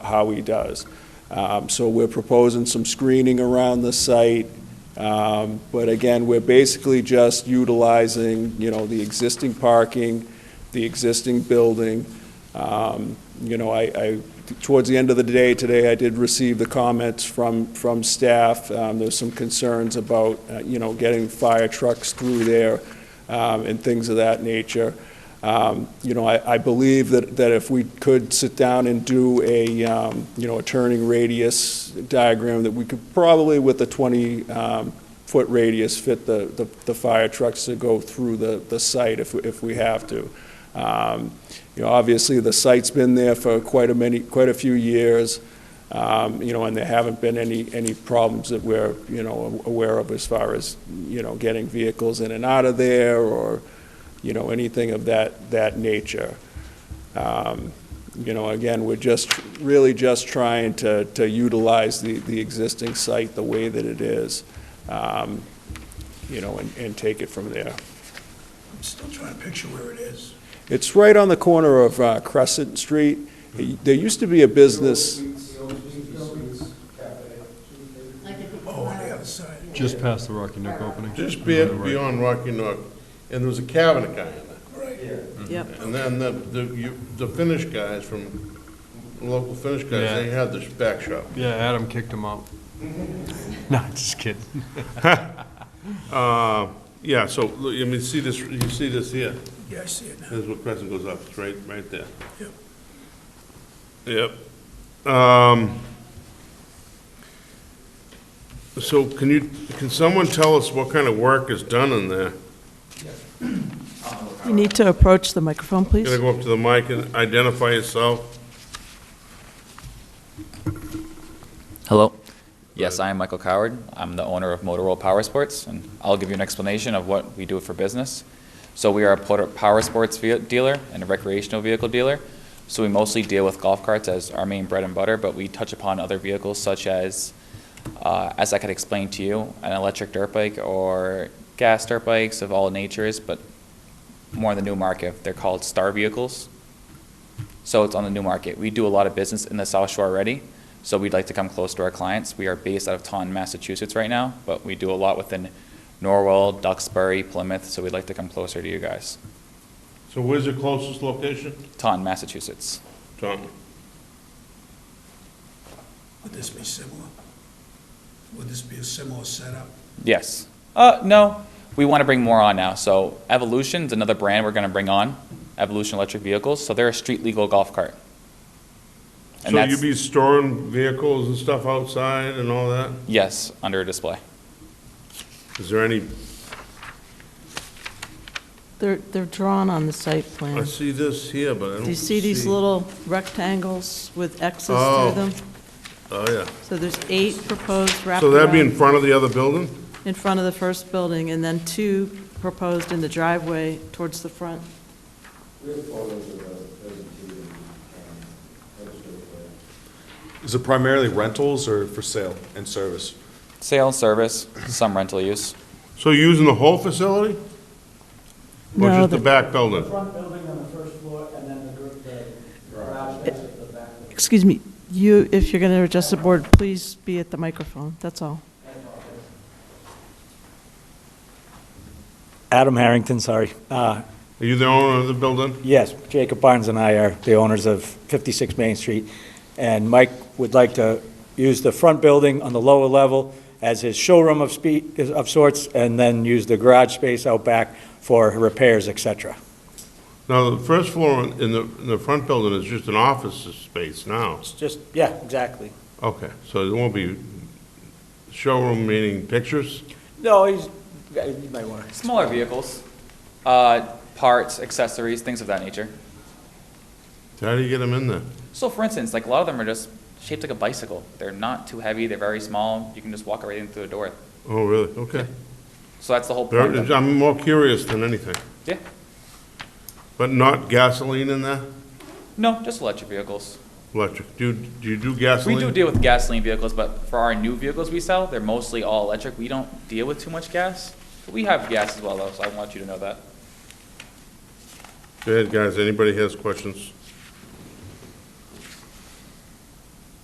how he does. Um, So we're proposing some screening around the site, um, but again, we're basically just utilizing, you know, the existing parking, the existing building. Um, You know, I, I, towards the end of the day today, I did receive the comments from, from staff. Um, There's some concerns about, uh, you know, getting fire trucks through there um, and things of that nature. Um, You know, I, I believe that, that if we could sit down and do a, um, you know, a turning radius diagram, that we could probably with a 20-foot radius fit the, the- the fire trucks to go through the, the site if, we- if we have to. Um, You know, obviously, the site's been there for quite a many, quite a few years, um, you know, and there haven't been any, any problems that we're, you know, aware of as far as, you know, getting vehicles in and out of there or, you know, anything of that, that nature. Um, You know, again, we're just, really just trying to, to utilize the, the existing site the way that it is, um, you know, and, and take it from there. I'm still trying to picture where it is. It's right on the corner of uh, Crescent Street. It- There used to be a business, Oh, on the other side. Just past the Rocky Nook opening. Just On be- the right. beyond Rocky Nook, and there was a cabinet guy in there. Mm-hmm. Yep, And then the, the, you, the Finnish guys from, local Finnish guys, Yeah. they had this back shop. Yeah, Adam kicked him out. No, I'm just kidding. Uh, yeah, so, look, I mean, see this, you see this here, Yeah, I see it now. this is where Crescent goes up, it's right, right there. Yep. Yep. Um, so can you, can someone tell us what kind of work is done in there? you need to approach the microphone, Gonna please. go up to the mic and identify yourself? Hello. Yes, I am Michael Coward. I'm the owner of Motorola Power Sports, and I'll give you an explanation of what we do for business. So we are a por- power sports ve- dealer and a recreational vehicle dealer. So we mostly deal with golf carts as our main bread and butter, but we touch upon other vehicles such as, uh, as I could explain to you, an electric dirt bike or gas dirt bikes of all natures, but more in the new market. They're called star vehicles. So it's on the new market. We do a lot of business in the South Shore already, so we'd like to come close to our clients. We are based out of Taunton, Massachusetts right now, but we do a lot within Norwell, Duxbury, Plymouth, so we'd like to come closer to you guys. So where's your closest location? Taunton, Massachusetts. Tom? Would this be similar? Would this be a similar setup? Yes. Uh, no, we want to bring more on now. So Evolution's another brand we're going to bring on, Evolution Electric Vehicles. So they're a street legal golf cart. And So that's- you'd be storing vehicles and stuff outside and all that? Yes, under a display. Is there any, They're, they're drawn on the site I plan. see this here, but I don't Do you see these little rectangles with X's through Oh. them? Oh, yeah. So there's eight proposed So that'd be in wraparound front of the other building? in front of the first building, and then two proposed in the driveway towards the front. Is it primarily rentals or for sale and service? Sale and service, some rental use. So you're using the whole facility? Or No, just the the- back building? front building on the first floor, and then the gr- the garage that's at the back. Excuse me, you, if you're going to adjust the board, please be at the microphone, that's all. Adam Harrington, sorry. Uh, Are you the owner of the building? Yes, Jacob Barnes and I are the owners of 56 Main Street, and Mike would like to use the front building on the lower level as his showroom of spe- of sorts, and then use the garage space out back for repairs, et cetera. Now, the first floor in in the, in the front building is just an office space now. It's just, yeah, exactly. Okay, so there won't be showroom meaning pictures? No, he's, you might want to. Smaller vehicles, uh, parts, accessories, things of that nature. How do you get them in there? So for instance, like a lot of them are just shaped like a bicycle. They're not too heavy, they're very small, you can just walk right in through the door. Oh, really? Okay. So that's the whole point. of- There- I'm more curious than anything. Yeah, But not gasoline in there? no, just electric vehicles. Electric. Do, do you do We gasoline? do deal with gasoline vehicles, but for our new vehicles we sell, they're mostly all electric. We don't deal with too much gas. But we have gas as well though, so I want you to know that. Go ahead, guys. Anybody has questions?